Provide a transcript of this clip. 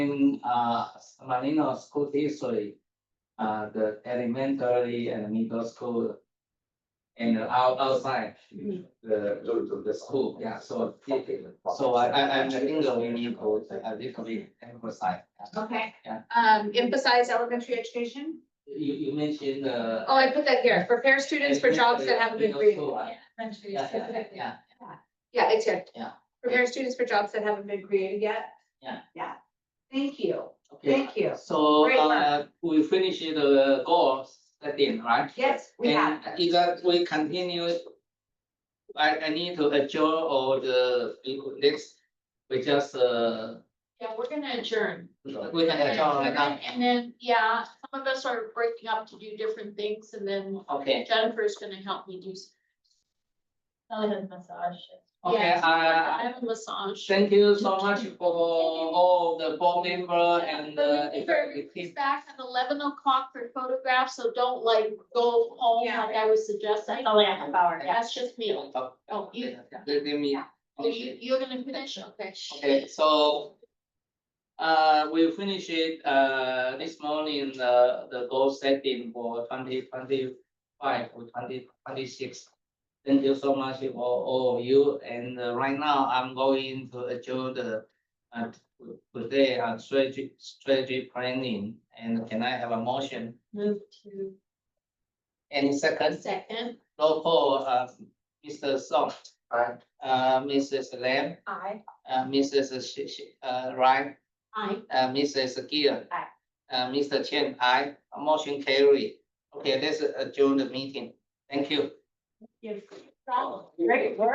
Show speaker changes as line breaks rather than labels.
in uh Manino School District, uh the elementary and middle school. And out outside
Mm-hmm.
the the the school, yeah, so it- so I I I think that we need to a little bit emphasize. yeah.
Okay,
Yeah.
um, emphasize elementary education.
You you mentioned the.
Oh, I put that here, prepare students for jobs that have a good
Middle
grade.
school, uh,
Elementary
Yeah, yeah,
specifically.
yeah,
Yeah, it's here.
Yeah.
Prepare students for jobs that haven't been created yet.
Yeah.
Yeah. Thank you.
okay.
Thank you.
So
Great work.
uh we finished the goal setting, right?
Yes, we have.
And if that we continue. I I need to adjourn all the next, we just uh,
Yeah, we're gonna adjourn.
we can adjourn right now.
And then, yeah, some of us are breaking up to do different things and then
Okay,
Jennifer's gonna help me do. some-
massage.
okay,
Yeah, I
uh,
have a massage.
thank you so much for all the board member and uh.
Remember, He's back at eleven o'clock for photographs, so don't like go home
Yeah.
like I was suggesting.
Only a half hour, yeah.
That's just me.
Oh,
you-
Let let me.
So You, you're gonna finish, okay?
Okay, so. Uh, we finish it, uh, this morning, the, the goal setting for twenty twenty-five or twenty twenty-six. Thank you so much for all of you, and uh, right now, I'm going to adjourn the, uh, today, uh, strategy, strategy planning, and can I have a motion?
Move to
Any second,
second.
roll call, uh, Mr. Song. Right. Uh, Mrs. Lam,
I.
uh, Mrs. Shi- Shi- uh, Ryan,
Aye.
Uh, Mrs. Gill.
Aye.
Uh, Mr. Chen, aye. Motion carry. Okay, let's adjourn the meeting. Thank you.
Yes. Problem.
Oh,
Great work.